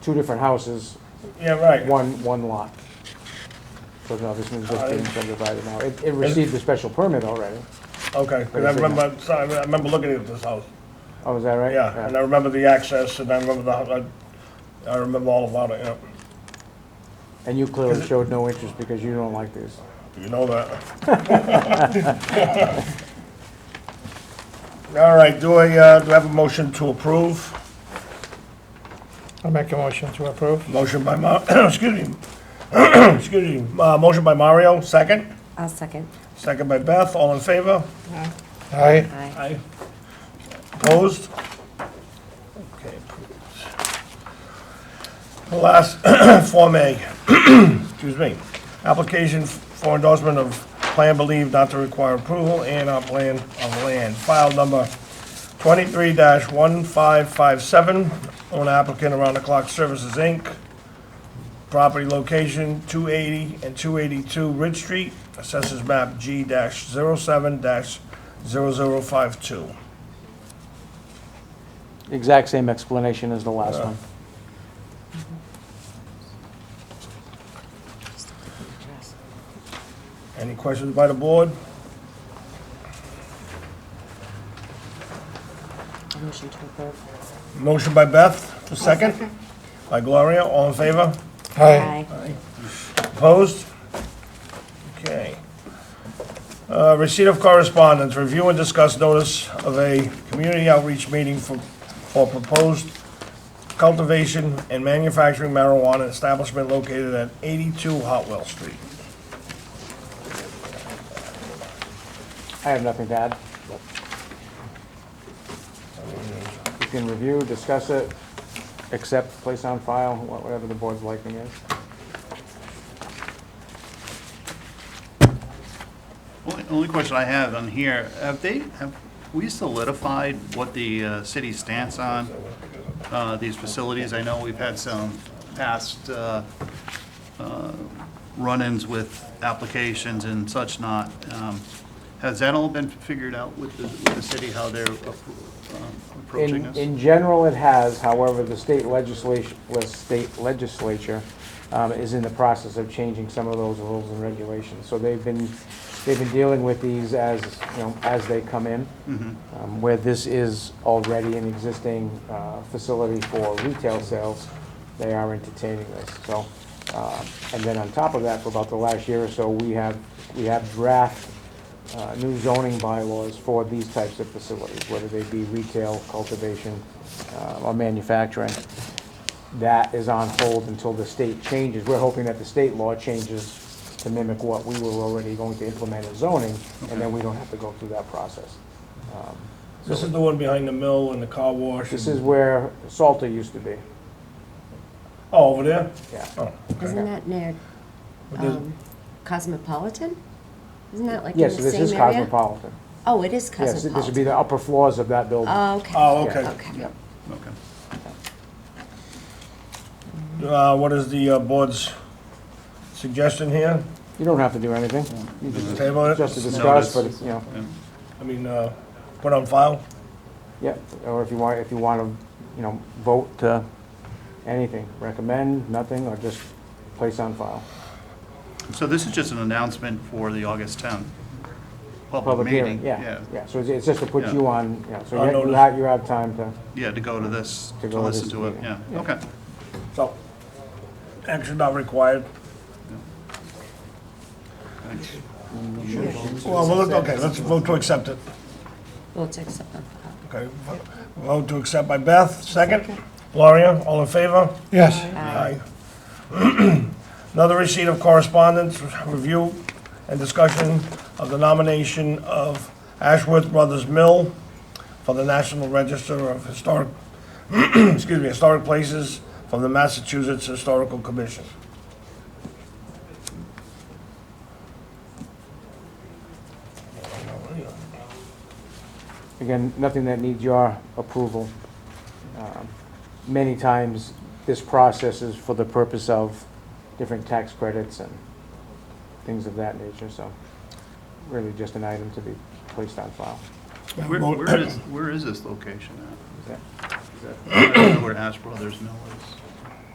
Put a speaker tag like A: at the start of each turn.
A: two different houses,
B: Yeah, right.
A: one, one lot. So now this one's just being subdivided now. It, it received a special permit already.
B: Okay, 'cause I remember, so I remember looking at this house.
A: Oh, is that right?
B: Yeah, and I remember the access, and I remember the, I- I remember all about it, yeah.
A: And you clearly showed no interest because you don't like this.
B: You know that. All right, do I, uh, do I have a motion to approve?
C: I'll make a motion to approve.
B: Motion by Ma, excuse me, excuse me, uh, motion by Mario, second,
D: I'll second.
B: second by Beth, all in favor?
C: Aye.
D: Aye.
B: Aye. Opposed? Okay, approved. The Last, Form A, excuse me, application for endorsement of plan believed not to require approval and our plan of land, file number twenty-three one five five seven, owner applicant Around the Clock Services, Inc., property location two eighty and two eighty-two Ridge Street, assessors map G 7 0052.
A: Exact same explanation as the last one.
B: Any questions by the board?
D: Motion to approve.
B: Motion by Beth, a second. By Gloria, all in favor?
C: Aye.
B: Opposed? Okay. Uh, Receipt of correspondence, review and discuss notice of a community outreach meeting for, for proposed cultivation and manufacturing marijuana establishment located at 82 Hotwell Street.
A: I have nothing to add. You can review, discuss it, accept, place on file, wha- whatever the board's liking is.
E: Only, only question I have on here, have they, have we solidified what the uh, city stance on uh, these facilities? I know we've had some past uh, uh, run-ins with applications and such not. Um, Has that all been figured out with the, with the city, how they're appro- um, approaching
A: In,
E: us?
A: in general, it has, however, the state legislation, the state legislature um, is in the process of changing some of those rules and regulations. So they've been, they've been dealing with these as, you know, as they come in.
E: Mm-hmm.
A: Um, Where this is already an existing uh, facility for retail sales, they are entertaining this, so. uh, And then on top of that, for about the last year or so, we have, we have draft uh, new zoning bylaws for these types of facilities, whether they be retail, cultivation, uh, or manufacturing. That is on hold until the state changes. We're hoping that the state law changes to mimic what we were already going to implement as zoning, and then we don't have to go through that process. Um,
B: This is the one behind the mill and the car wash.
A: This
B: and-
A: is where Salter used to be,
B: Oh, over there?
A: yeah.
B: Oh,
D: Isn't that near
B: does-
D: um, Cosmopolitan? Isn't that like in the
A: Yes,
D: same
A: this
D: area?
A: is Cosmopolitan.
D: Oh, it
A: Yes, this
D: is
A: would be
D: Cosmopolitan.
A: the upper floors of that building.
D: Oh, okay.
B: Oh, okay.
D: Okay.
E: Okay.
B: Uh, What is the uh, board's suggestion here?
A: You don't have to do anything. You just,
B: Table it?
A: just to discuss, but, you know.
B: I mean, uh, put on file?
A: Yeah, or if you want, if you want to, you know, vote to anything, recommend, nothing, or just place on file.
E: So this is just an announcement for the August 10th public
A: Public
E: meeting?
A: hearing, yeah, yeah. So it's- it's just to put
E: Yeah.
A: you on, you know, so
B: On
A: you- you
B: notice.
A: have, you have time to,
E: Yeah, to go to this,
A: To
E: to
A: go to
E: listen
A: this
E: to it,
A: meeting.
E: yeah, okay.
B: So, action not required.
E: Thanks.
B: Well, we'll look, okay, let's vote to accept it.
D: We'll take something. off.
B: Okay, vote to accept by Beth, second. Gloria, all in favor?
C: Yes.
B: Aye. Another receipt of correspondence, review and discussion of the nomination of Ashworth Brothers Mill for the National Register of Historic, excuse me, Historic Places from the Massachusetts Historical Commission.
A: again, nothing that needs your approval. Um, Many times, this process is for the purpose of different tax credits and things of that nature, so really just an item to be placed on file.
E: Where, where is, where is this location
A: Is that-
E: at? Is that- I don't know Where Ash Brothers Mill is?